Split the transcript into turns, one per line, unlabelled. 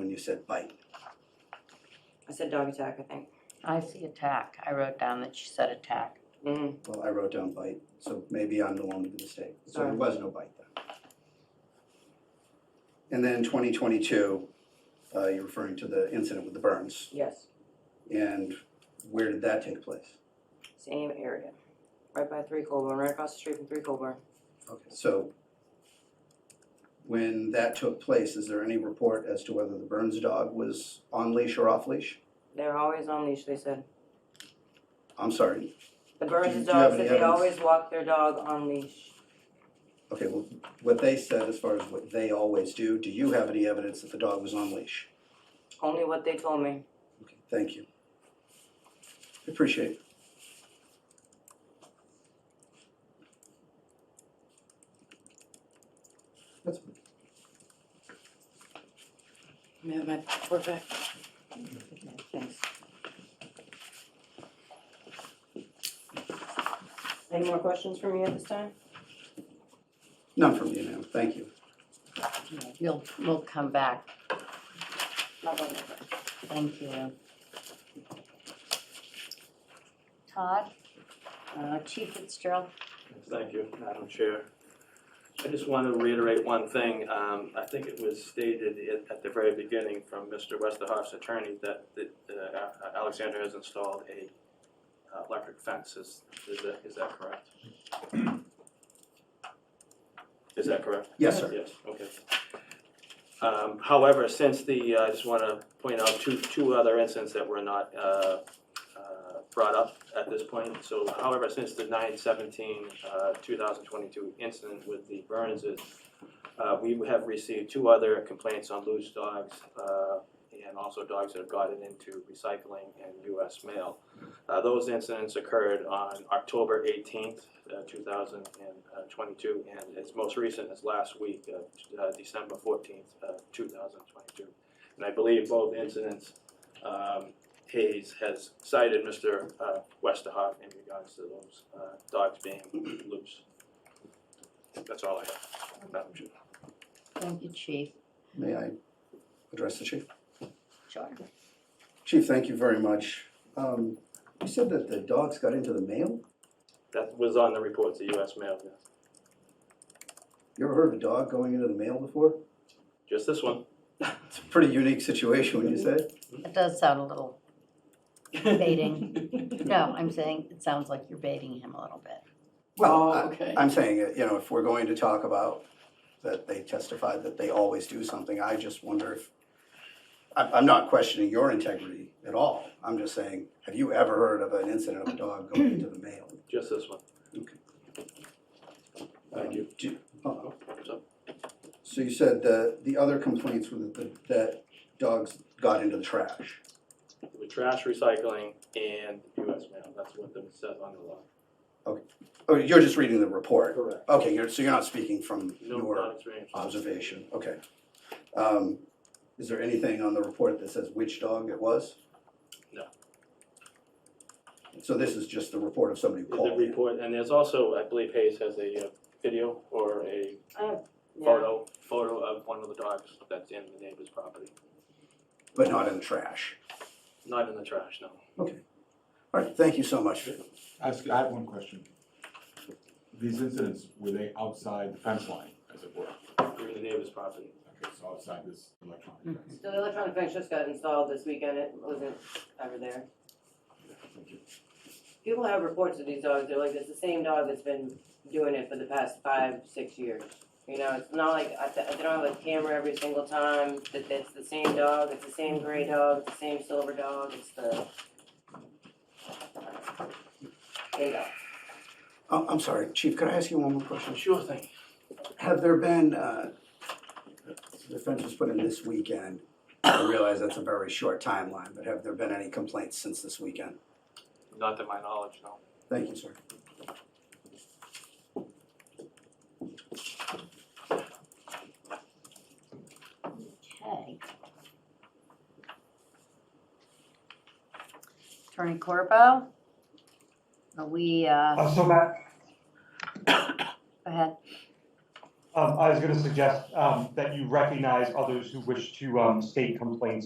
you said bite.
I said dog attack, I think.
I see attack. I wrote down that she said attack.
Mhm.
Well, I wrote down bite, so maybe I'm the one with the mistake. So there
Alright.
was no bite then. And then twenty twenty-two, uh, you're referring to the incident with the burns.
Yes,
And where did that take place?
same area, right by Three Colburn, right across the street from Three Colburn.
Okay, so when that took place, is there any report as to whether the Burns dog was on leash or off leash?
They're always on leash, they said.
I'm sorry.
The
Do
Burns'
you- do you have
dogs,
any
that they
evidence?
always walk their dog on leash.
Okay, well, what they said as far as what they always do, do you have any evidence that the dog was on leash?
Only what they told me.
Okay, thank you. Appreciate it. That's,
Let me have my report back.
Thanks.
Any more questions for me at this time?
none from you now, thank you.
You'll, we'll come back.
Not on that.
Thank you. Todd, uh, Chief Fitzgerald,
Thank you, Madam Chair. I just want to reiterate one thing. Um, I think it was stated at- at the very beginning from Mr. Westerhoff's attorney that that, uh, Alexander has installed a uh, electric fence. Is is that is that correct? Is that correct?
Yes, sir.
Yes, okay. Um, However, since the, uh, I just want to point out two, two other incidents that were not uh, uh, brought up at this point. So however, since the 9/17, uh, 2022 incident with the Burnses, uh, we have received two other complaints on loose dogs uh, and also dogs that have gotten into recycling and US mail. Uh, Those incidents occurred on October 18th, uh, 2022, uh, and its most recent is last week, uh, t- uh, December 14th, uh, 2022. And I believe both incidents, um, Hayes has cited Mr. uh, Westerhoff in regards to those uh, dogs being loose. That's all I have, Madam Chair.
thank you, Chief.
May I address the chief?
Sure.
Chief, thank you very much. Um, you said that the dogs got into the mail?
That was on the report to US Mail, yes.
You ever heard of a dog going into the mail before?
Just this one.
It's a pretty unique situation, wouldn't you say?
It does sound a little baiting. No, I'm saying it sounds like you're baiting him a little bit.
Well, I- I'm saying, uh, you know, if we're going to talk about that they testified that they always do something, I just wonder if, I'm, I'm not questioning your integrity at all. I'm just saying, have you ever heard of an incident of a dog going into the mail?
Just this one.
Okay.
Thank you.
Do oh,
So-
So you said the, the other complaints were that, the- that dogs got into the trash?
With trash recycling and US Mail, that's what it says on the law.
Oh, you're just reading the report?
Correct.
Okay, you're, so you're not speaking from
No,
your
not experience.
observation, okay. Um, is there anything on the report that says which dog it was?
No.
So this is just the report of somebody who
The
called in?
report, and there's also, I believe Hayes has a uh, video or a
Yeah,
photo, photo of one of the dogs that's in the neighbor's property.
but not in the trash?
Not in the trash, no.
All right, thank you so much.
Ask, I have one question. These incidents, were they outside the fence line, as it were?
They're in the neighbor's property.
Okay, so outside this electronic fence.
so the electronic fence just got installed this weekend, it wasn't ever there.
Thank you.
People have reports of these dogs, they're like, it's the same dog that's been doing it for the past five, six years. You know, it's not like, I, th- they don't have a camera every single time, that it's the same dog, it's the same gray dog, it's the same silver dog, it's the. There you go.
Oh, I'm sorry, Chief, could I ask you one more question?
Sure thing.
Have there been, uh, the fence was put in this weekend, I realize that's a very short timeline, but have there been any complaints since this weekend?
Not to my knowledge, no.
Thank you, sir.
Okay. Attorney Corbo? Are we, uh,
Uh, So Matt,
go ahead.
Um, I was gonna suggest, um, that you recognize others who wish to, um, state complaints